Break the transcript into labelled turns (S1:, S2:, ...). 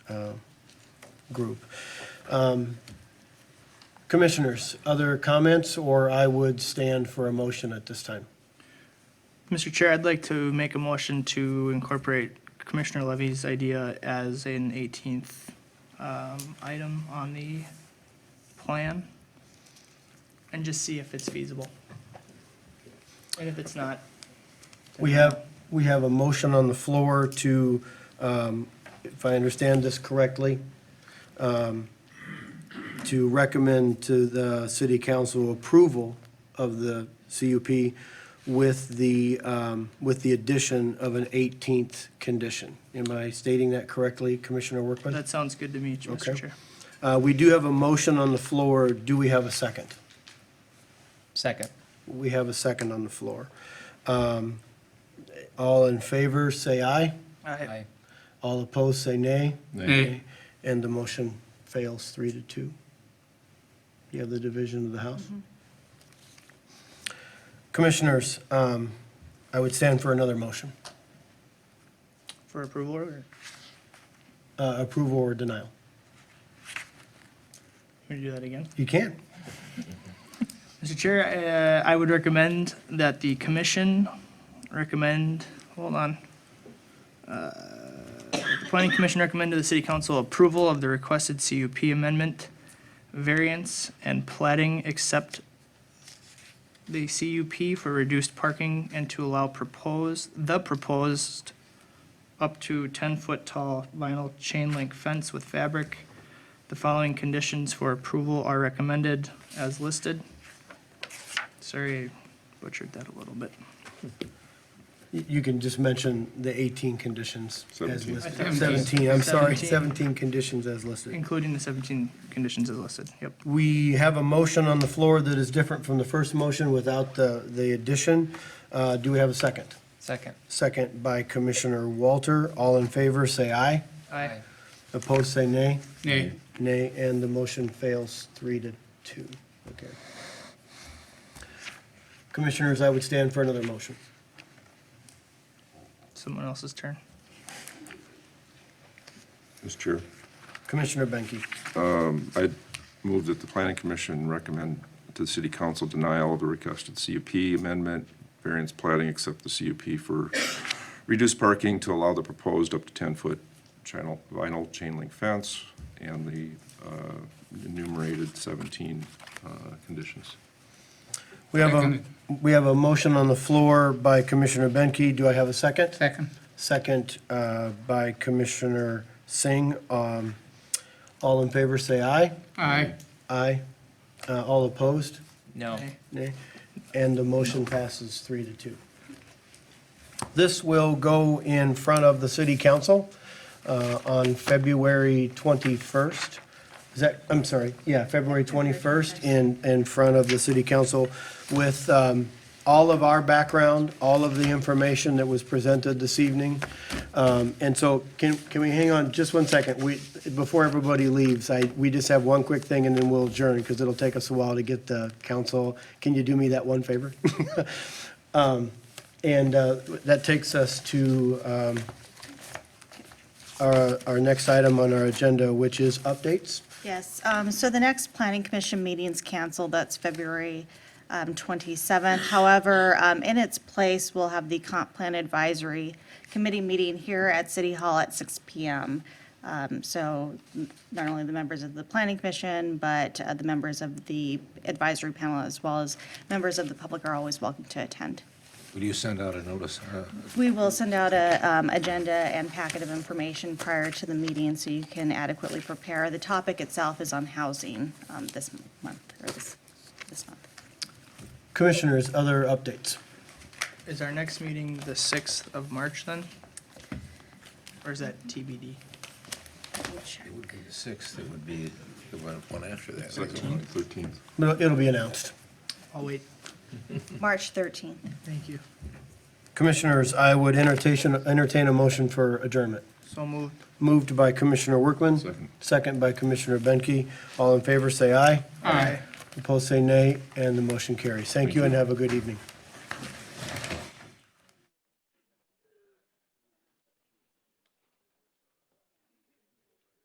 S1: uh, group. Um, Commissioners, other comments, or I would stand for a motion at this time?
S2: Mr. Chair, I'd like to make a motion to incorporate Commissioner Levy's idea as an 18th um, item on the plan and just see if it's feasible. And if it's not. then-
S1: We have, we have a motion on the floor to, um, if I understand this correctly, um, to recommend to the city council approval of the CUP with the, um, with the addition of an 18th condition. Am I stating that correctly, Commissioner Workman?
S2: That sounds good to me,
S1: Okay.
S2: Mr. Chair.
S1: Uh, We do have a motion on the floor. Do we have a second?
S3: Second.
S1: We have a second on the floor. Um, All in favor, say aye.
S2: I-
S1: All opposed, say nay.
S4: Nay.
S1: And the motion fails three to two. You have the division of the House. Commissioners, um, I would stand for another motion,
S2: For approval or
S1: uh, approval or denial.
S2: can we do that again?
S1: You can.
S2: Mr. Chair, uh, I would recommend that the commission recommend, hold on. Uh, The planning commission recommend to the city council approval of the requested CUP amendment, variance, and plating except the CUP for reduced parking and to allow proposed, the proposed up to 10-foot tall vinyl chain link fence with fabric. The following conditions for approval are recommended as listed. Sorry, I butchered that a little bit.
S1: You you can just mention the 18 conditions as
S4: Seventeen.
S1: listed.
S2: Seventeen.
S1: 17, I'm sorry, 17
S2: Seventeen.
S1: conditions as listed.
S2: Including the 17 conditions as listed, yep.
S1: We have a motion on the floor that is different from the first motion without the the addition. Uh, Do we have a second?
S3: Second.
S1: Second by Commissioner Walter. All in favor, say aye.
S2: Aye.
S1: Opposed, say nay.
S4: Nay.
S1: Nay, and the motion fails three to two. Okay. Commissioners, I would stand for another motion.
S2: Someone else's turn.
S4: Mr. Chair,
S1: Commissioner Benke.
S4: I move that the planning commission recommend to the city council denial of the requested CUP amendment, variance plating except the CUP for reduced parking to allow the proposed up to 10-foot channel vinyl chain link fence and the uh, enumerated 17 uh, conditions.
S1: We have a, we have a motion on the floor by Commissioner Benke. Do I have a second?
S5: Second.
S1: Second uh, by Commissioner Singh. Um, All in favor, say aye.
S5: Aye.
S1: Aye. Uh, All opposed?
S3: No.
S2: Aye.
S1: Nay. And the motion passes three to two. This will go in front of the city council uh, on February 21st. Is that, I'm sorry, yeah, February 21st in, in front of the city council with um, all of our background, all of the information that was presented this evening. Um, And so can, can we hang on just one second? We, before everybody leaves, I, we just have one quick thing and then we'll adjourn because it'll take us a while to get the council. Can you do me that one favor? Um, And uh, that takes us to um, our, our next item on our agenda, which is updates.
S6: Yes, um, so the next planning commission meeting's canceled, that's February um, 27th. However, um, in its place, we'll have the comp plan advisory committee meeting here at City Hall at 6 PM. Um, So not only the members of the planning commission, but uh, the members of the advisory panel, as well as members of the public are always welcome to attend.
S7: Will you send out a notice? Uh,
S6: We will send out a um, agenda and packet of information prior to the meeting so you can adequately prepare. The topic itself is on housing um, this month, or this, this month.
S1: Commissioners, other updates?
S2: Is our next meeting the 6th of March then? Or is that TBD?
S6: Let me check.
S7: It would be the 6th, it would be the one one after that.
S4: Second one, 13th.
S1: It'll it'll be announced.
S2: I'll wait.
S6: March 13th.
S2: Thank you.
S1: Commissioners, I would entertain, entertain a motion for adjournment.
S2: So moved.
S1: Moved by Commissioner Workman.
S4: Second.
S1: Second by Commissioner Benke. All in favor, say aye.
S5: Aye.
S1: Opposed, say nay, and the motion carries. Thank you and have a good evening.